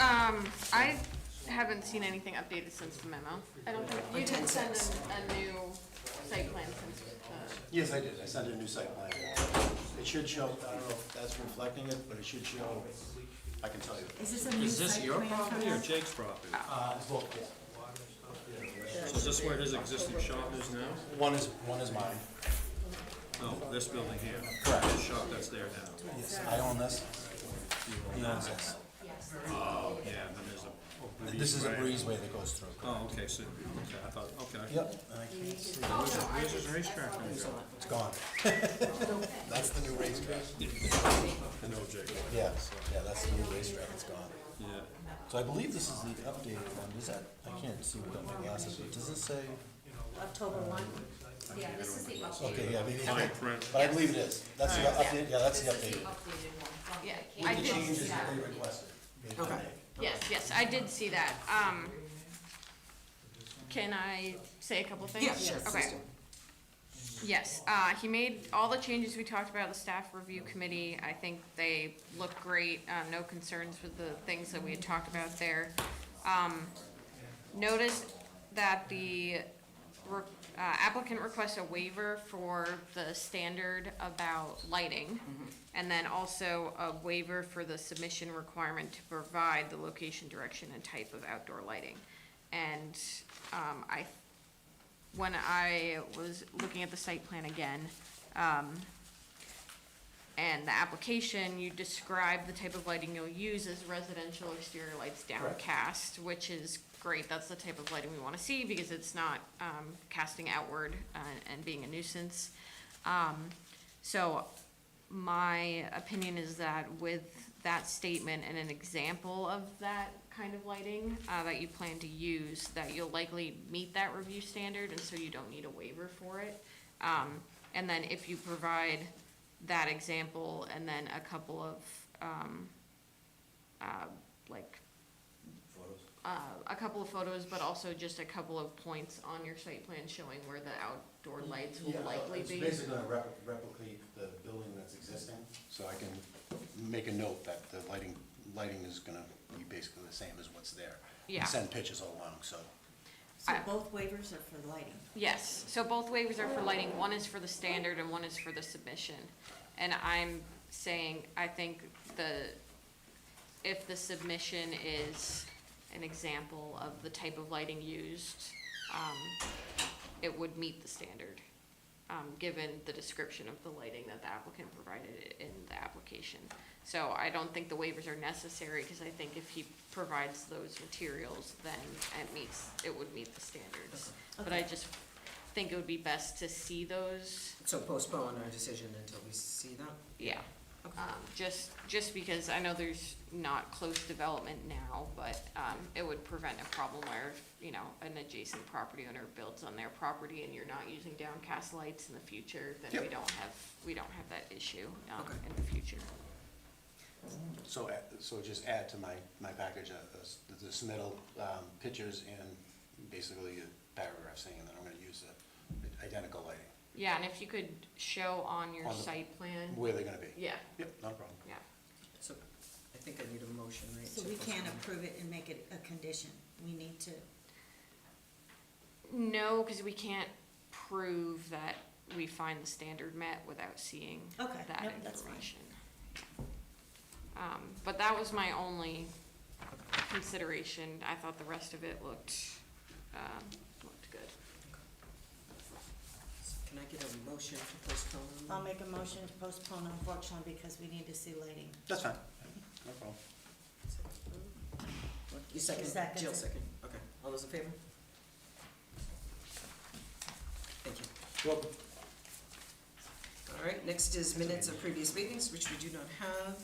Um, I haven't seen anything updated since the memo. I don't think, you didn't send a, a new site plan since Yes, I did, I sent a new site plan. It should show, I don't know if that's reflecting it, but it should show, I can tell you. Is this a new Is this site your plan for property or us? Jake's property? Uh, it's both, yes. So is this where his existing shop is now? One is, one is mine. No, this building here. Correct. His shop that's there now. Yes, I own this. He owns this. Oh, yeah, and then there's a. And This is a breezeway that goes through. Oh, okay, so, okay, I thought, okay. Yep, and I can't see, it. Where's his- Where's his racetrack gonna go? it's gone. That's the new racetrack. I know Jake. Yeah, yeah, that's the new racetrack, it's gone. Yeah. So I believe this is the updated one, does that, I can't see without my glasses, but does it say? October one? Yeah, this is the updated, Okay, yeah, maybe, it's Fine not. print. but I believe it is. That's the update, yeah, that's the this is the updated. updated one from Yeah, the I cable. The did changes see that that. they requested. they Okay. made. Yes, yes, I did see that. Um, can I say a couple things? Yeah, sure. Okay. Yes, uh, he made all the changes we talked about, the staff review committee, I think they look great, uh, no concerns with the things that we had talked about there. Um, notice that the re- uh, applicant requests a waiver for the standard about lighting, and then also a waiver for the submission requirement to provide the location, direction, and type of outdoor lighting. And, um, I when I was looking at the site plan again, um, and the application, you describe the type of lighting you'll use as residential exterior lights downcast, which is great, that's the type of lighting we wanna see, because it's not, um, casting outward uh, and being a nuisance. Um, so my opinion is that with that statement and an example of that kind of lighting uh, that you plan to use, that you'll likely meet that review standard, and so you don't need a waiver for it. Um, and then if you provide that example and then a couple of, um, uh, like, uh, a couple of photos, but also just a couple of points on your site plan showing where the outdoor lights Yeah, will likely be. It's basically gonna rep- replicate the building that's existing, so I can make a note that the lighting, lighting is gonna be basically the same as what's there. And Yeah. Send pictures all along, so, So I- both waivers are for lighting. Yes, so both waivers are for lighting, one is for the standard and one is for the submission. And I'm saying, I think the, if the submission is an example of the type of lighting used, um, it would meet the standard, um, given the description of the lighting that the applicant provided in the application. So I don't think the waivers are necessary, because I think if he provides those materials, then it meets, it would meet the standards. But I Okay. just think it would be best to see those, So postpone our decision until we see that? yeah. Um, just, just because I know there's not close development now, but, um, it would prevent a problem where, you know, an adjacent property owner builds on their property and you're not using downcast lights in the future, then we Yep. don't have, we don't have that issue, um, Okay. in the future. so, add- so just add to my, my package, uh, uh, s- the submittal, um, pictures and basically a paragraph saying that I'm gonna use the identical lighting, Yeah, and if you could show on your On the- site plan, where they're gonna be. yeah, Yep, not a problem. yeah, So I think I need a motion, right? So to we can't postpone. approve it and make it a condition. We need to, no, cause we can't prove that we find the standard met without seeing okay, that Yep, that's fine. information. Um, but that was my only consideration, I thought the rest of it looked, um, looked good. So Can I get a motion to postpone? I'll make a motion to postpone unfortunately because we need to see lighting. That's fine, no problem. What, You second, Second. Jill second, okay, all those in favor? Thank you. Welcome. All right, next is minutes of previous meetings, which we do not have.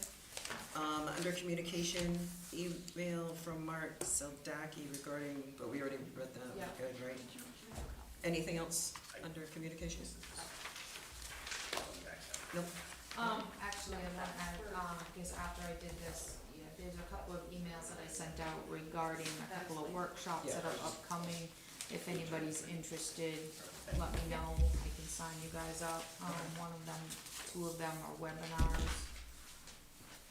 Um, under communication, email from Mark Seldaki regarding, but we already read that, Yeah. we're good, right? Anything else under communication? Nope. Um, actually, I'm not, at- um, because after I did this, yeah, there's a couple of emails that I sent out regarding a couple of workshops that are upcoming. If anybody's interested, let me know, I can sign you guys up, um, one of them, two of them are webinars.